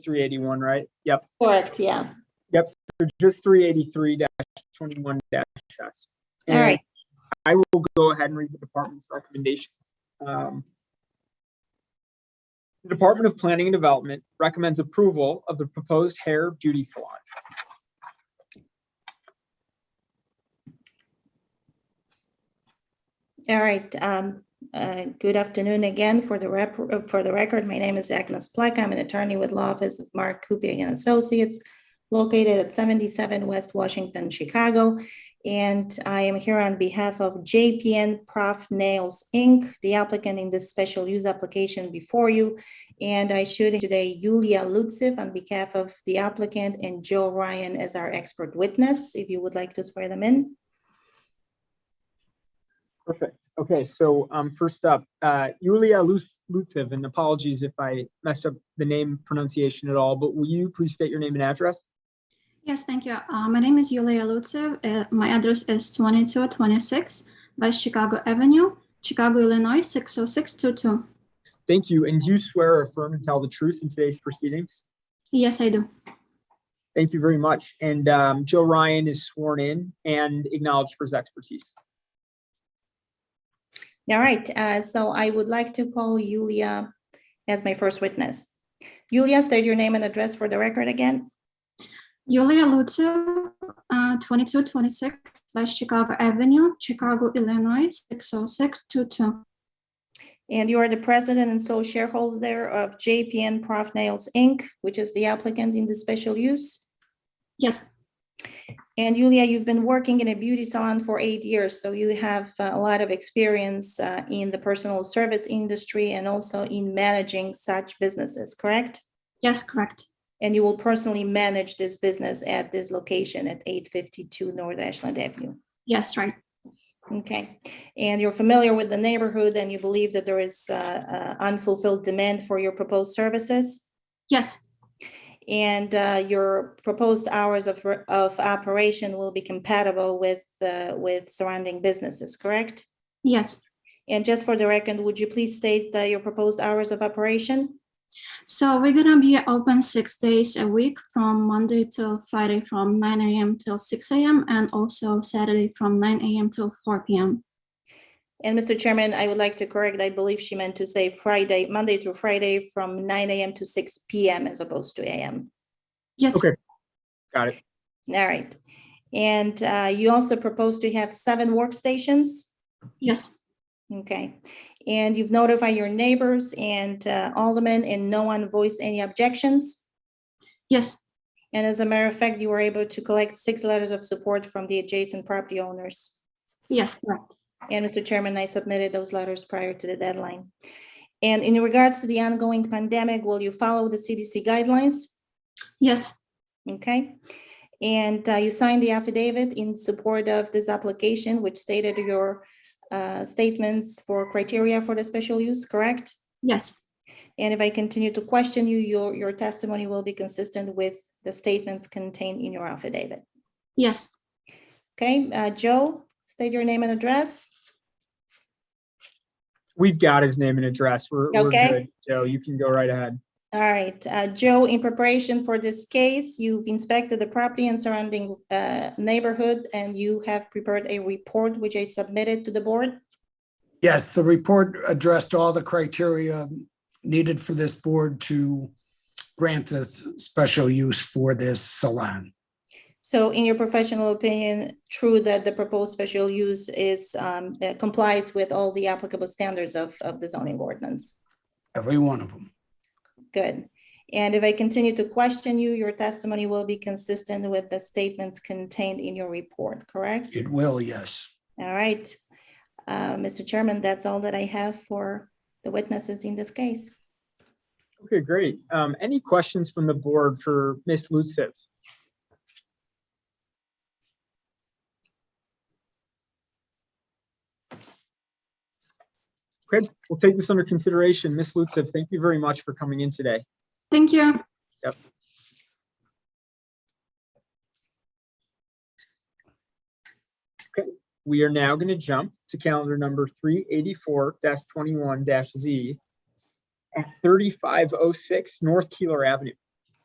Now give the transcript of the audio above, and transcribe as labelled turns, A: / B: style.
A: three eighty-one, right? Yep,
B: Correct, yeah.
A: so just three eighty-three twenty-one dash S.
B: All right.
A: I will go ahead and read the department's recommendation. Um, The Department of Planning and Development recommends approval of the proposed hair beauty salon.
B: All right, um, uh, good afternoon again for the rep, uh, for the record. My name is Agnes Black. I'm an attorney with Law Office of Mark Kupiec and Associates located at seventy-seven West Washington, Chicago. And I am here on behalf of JPN Prof Nails, Inc., the applicant in this special use application before you. And I should today Yulia Lutsev on behalf of the applicant and Joe Ryan as our expert witness, if you would like to swear them in.
A: Perfect. Okay, so um, first up, uh, Yulia Lus- Lutsev, and apologies if I messed up the name pronunciation at all, but will you please state your name and address?
C: Yes, thank you. Uh, my name is Yulia Lutsev. Uh, my address is 2226 West Chicago Avenue, Chicago, Illinois 60622.
A: Thank you, and do you swear or affirm to tell the truth in today's proceedings?
C: Yes, I do.
A: Thank you very much. And um, Joe Ryan is sworn in and acknowledged for his expertise.
B: All right, uh, so I would like to call Yulia as my first witness. Yulia, state your name and address for the record again.
C: Yulia Lutsev, uh, 2226 West Chicago Avenue, Chicago, Illinois 60622.
B: And you are the president and sole shareholder of JPN Prof Nails, Inc., which is the applicant in the special use.
C: Yes,
B: And Yulia, you've been working in a beauty salon for eight years, so you have uh, a lot of experience uh, in the personal service industry and also in managing such businesses, correct?
C: yes, correct.
B: And you will personally manage this business at this location at 852 North Ashland Avenue.
C: Yes, right.
B: Okay, and you're familiar with the neighborhood and you believe that there is uh, uh, unfulfilled demand for your proposed services?
C: Yes,
B: And uh, your proposed hours of, re- of operation will be compatible with, uh, with surrounding businesses, correct?
C: yes.
B: And just for the record, would you please state uh, your proposed hours of operation?
C: So we're going to be open six days a week from Monday till Friday from 9 a.m. till 6 a.m. and also Saturday from 9 a.m. till 4 p.m.
B: And Mr. Chairman, I would like to correct, I believe she meant to say Friday, Monday through Friday from 9 AM to 6 PM as opposed to AM.
C: Yes,
A: Okay. Got it.
B: All right. And uh, you also propose to have seven workstations?
C: yes,
B: Okay, and you've notified your neighbors and uh, aldermen, and no one voiced any objections?
C: yes,
B: And as a matter of fact, you were able to collect six letters of support from the adjacent property owners.
C: yes, correct.
B: And Mr. Chairman, I submitted those letters prior to the deadline. And in regards to the ongoing pandemic, will you follow the CDC guidelines?
C: Yes,
B: Okay, and uh, you signed the affidavit in support of this application, which stated your uh, statements for criteria for the special use, correct?
C: yes,
B: And if I continue to question you, your, your testimony will be consistent with the statements contained in your affidavit.
C: yes.
B: Okay, uh, Joe, state your name and address.
A: We've got his name and address. We're, we're
B: Okay.
A: good. Joe, you can go right ahead.
B: All right, uh, Joe, in preparation for this case, you've inspected the property and surrounding uh, neighborhood, and you have prepared a report which I submitted to the board.
D: Yes, the report addressed all the criteria needed for this board to grant this special use for this salon.
B: So in your professional opinion, true that the proposed special use is um, uh, complies with all the applicable standards of, of the zoning ordinance?
D: Every one of them.
B: Good. And if I continue to question you, your testimony will be consistent with the statements contained in your report, correct?
D: It will, yes.
B: All right. Uh, Mr. Chairman, that's all that I have for the witnesses in this case.
A: Okay, great. Um, any questions from the board for Ms. Lutsev? Okay, we'll take this under consideration. Ms. Lutsev, thank you very much for coming in today.
C: Thank you.
A: We are now going to jump to calendar number three eighty-four twenty-one Z at thirty-five oh six North Keeler Avenue.